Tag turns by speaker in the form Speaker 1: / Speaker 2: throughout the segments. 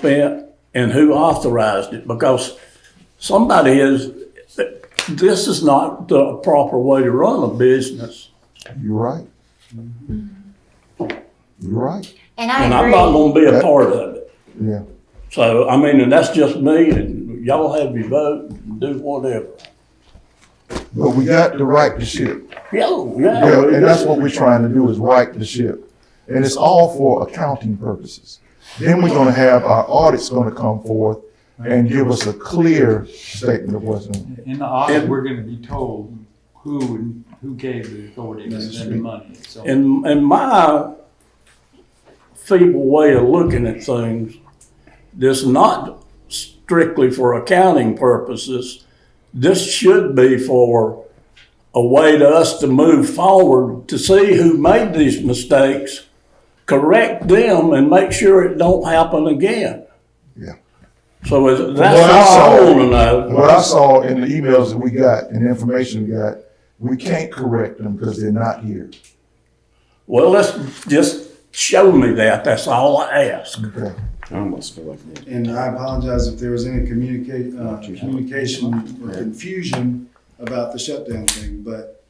Speaker 1: spent and who authorized it, because somebody is, this is not the proper way to run a business.
Speaker 2: You're right. Mm-hmm. You're right.
Speaker 3: And I
Speaker 1: And I'm
Speaker 3: agree.
Speaker 1: not gonna be a part of it.
Speaker 2: Yeah.
Speaker 1: So, I mean, and that's just me, and y'all have your vote, and do whatever.
Speaker 2: But we got to right the ship.
Speaker 1: Yeah,
Speaker 2: Yeah,
Speaker 1: yeah.
Speaker 2: and that's what we're trying to do is right the ship. And it's all for accounting purposes. Then we're gonna have our audits gonna come forth and give us a clear statement of what's in.
Speaker 4: In the audit, we're gonna be told who, and who gave the authority to spend the money, so.
Speaker 1: And, and my feeble way of looking at things, this not strictly for accounting purposes. This should be for a way to us to move forward, to see who made these mistakes, correct them, and make sure it don't happen again.
Speaker 2: Yeah.
Speaker 1: So is-
Speaker 2: What
Speaker 1: that's
Speaker 2: I
Speaker 1: all I
Speaker 2: saw-
Speaker 1: wanna know.
Speaker 2: What I saw in the emails that we got and the information we got, we can't correct them because they're not here.
Speaker 1: Well, let's just show me that, that's all I ask.
Speaker 2: Okay.
Speaker 5: I almost feel like that.
Speaker 6: And I apologize if there was any communicate, uh, communication or confusion about the shutdown thing, but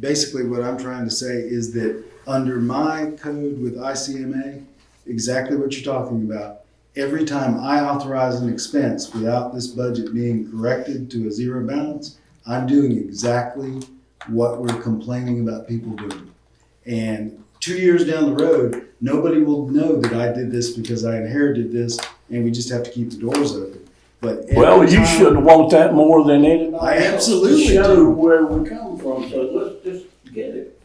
Speaker 6: basically what I'm trying to say is that under my code with ICMA, exactly what you're talking about, every time I authorize an expense without this budget being corrected to a zero balance, I'm doing exactly what we're complaining about people doing. And two years down the road, nobody will know that I did this because I inherited this, and we just have to keep the doors open. But every
Speaker 1: Well, you
Speaker 6: time-
Speaker 1: should want that more than anybody.
Speaker 6: I
Speaker 1: else to
Speaker 6: absolutely
Speaker 1: Show
Speaker 6: do.
Speaker 1: where we come from, so let's just get it.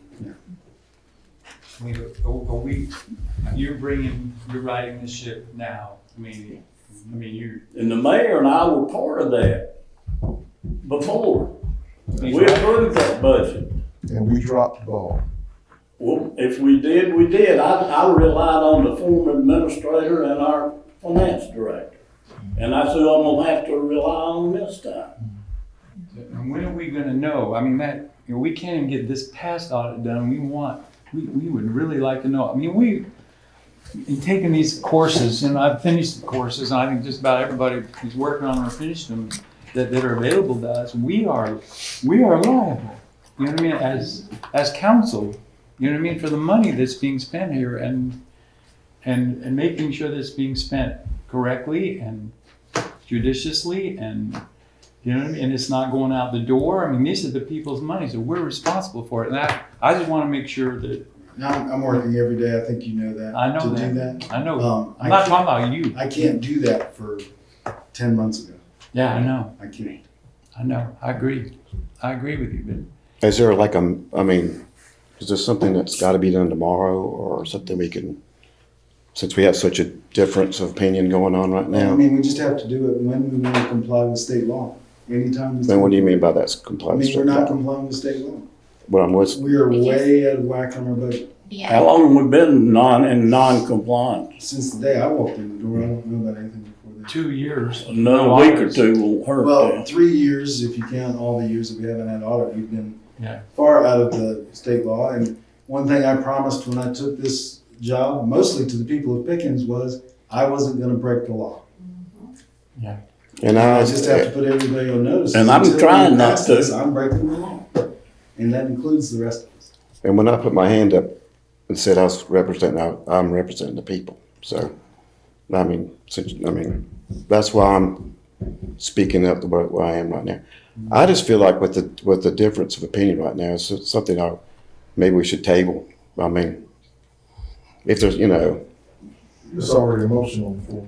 Speaker 4: I mean, are are we, you're bringing, you're riding the ship now, I mean, I mean, you're.
Speaker 1: And the mayor and I were part of that before. We approved that budget.
Speaker 2: And we dropped the ball.
Speaker 1: Well, if we did, we did. I, I relied on the former administrator and our finance director. And I said, I'm gonna have to rely on this time.
Speaker 4: And when are we gonna know? I mean, that, you know, we can't even get this past audit done, we want, we, we would really like to know. I mean, we, in taking these courses, and I've finished the courses, and I think just about everybody who's working on them or finished them that, that are available to us, we are, we are liable. You know what I mean, as, as council, you know what I mean, for the money that's being spent here and, and, and making sure that it's being spent correctly and judiciously and you know what I mean? And it's not going out the door. I mean, this is the people's money, so we're responsible for it. And I, I just want to make sure that
Speaker 6: And I'm, I'm working every day. I think you know that.
Speaker 4: I know
Speaker 6: to do
Speaker 4: that.
Speaker 6: that.
Speaker 4: I know.
Speaker 6: Um,
Speaker 4: I'm not
Speaker 6: I, can't,
Speaker 4: talking about you.
Speaker 6: I can't do that for ten months ago.
Speaker 4: Yeah, I know.
Speaker 6: I can't.
Speaker 4: I know. I agree. I agree with you, but
Speaker 5: Is there like a, I mean, is there something that's got to be done tomorrow or something we can, since we have such a difference of opinion going on right
Speaker 6: I
Speaker 5: now?
Speaker 6: mean, we just have to do it when we want to comply with state law. Anytime. we-
Speaker 5: Then what do you mean by that's
Speaker 6: I
Speaker 5: compliance?
Speaker 6: mean, we're not complying with state law.
Speaker 5: What I'm, what's,
Speaker 6: We are way out of whack on our budget.
Speaker 1: How
Speaker 3: Yeah,
Speaker 1: long we been non, in non-compliance?
Speaker 6: Since the day I walked in the door, I don't know about anything before that.
Speaker 4: two years.
Speaker 1: Another week or two will hurt
Speaker 6: Well,
Speaker 1: that.
Speaker 6: three years, if you count all the years that we haven't had audit, we've been
Speaker 4: Yeah.
Speaker 6: far out of the state law. And one thing I promised when I took this job, mostly to the people of Pickens, was I wasn't gonna break the law.
Speaker 5: and
Speaker 6: I
Speaker 5: I,
Speaker 6: just have to put everybody on notice.
Speaker 1: And I'm
Speaker 6: Until we
Speaker 1: trying not
Speaker 6: pass
Speaker 1: to.
Speaker 6: this, I'm breaking the law. And that includes the rest of us.
Speaker 5: and when I put my hand up and said I was representing, I- I'm representing the people. So, I mean, since, I mean, that's why I'm speaking up the way where I am right now. I just feel like with the, with the difference of opinion right now, it's something I, maybe we should table. I mean, if there's, you know,
Speaker 2: It's already emotional before.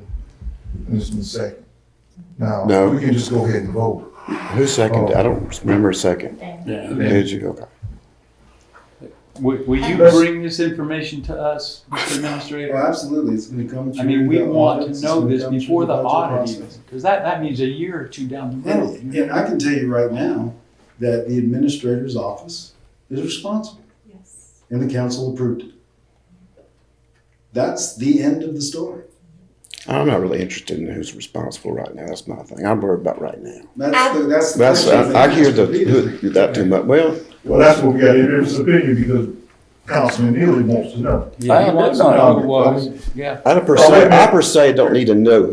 Speaker 2: And it's been second. Now,
Speaker 5: No.
Speaker 2: we can just go ahead and vote.
Speaker 5: Who seconded? I don't remember a second.
Speaker 1: Yeah.
Speaker 5: Did you? Okay.
Speaker 4: Will, will you
Speaker 2: Let's-
Speaker 4: bring this information to us, Mr.
Speaker 6: Well, uh,
Speaker 4: Administrator?
Speaker 6: absolutely, it's gonna come through.
Speaker 4: I mean, we
Speaker 6: the
Speaker 4: want
Speaker 6: audits,
Speaker 4: to
Speaker 6: it's
Speaker 4: know
Speaker 6: gonna
Speaker 4: this
Speaker 6: come through
Speaker 4: before the
Speaker 6: budget
Speaker 4: audit
Speaker 6: process.
Speaker 4: even, because that, that means a year or two down the road.
Speaker 6: And, and I can tell you right now that the administrator's office is responsible. Yes. And the council approved it. That's the end of the story.
Speaker 5: I'm not really interested in who's responsible right now. That's my thing. I'm worried about right now.
Speaker 6: That's the, that's the.
Speaker 5: That's
Speaker 6: question
Speaker 5: I, I
Speaker 6: that
Speaker 5: hear
Speaker 6: keeps
Speaker 5: the
Speaker 6: repeating.
Speaker 5: who, that too much. Well,
Speaker 2: Well, that's what we got in this opinion because Councilman Neely wants to know.
Speaker 1: I
Speaker 4: Yeah, he
Speaker 1: did
Speaker 4: wants to
Speaker 1: not
Speaker 2: know.
Speaker 4: know who it was, yeah.
Speaker 5: I per
Speaker 2: Oh, wait
Speaker 5: se,
Speaker 2: a minute.
Speaker 5: I per se don't need to know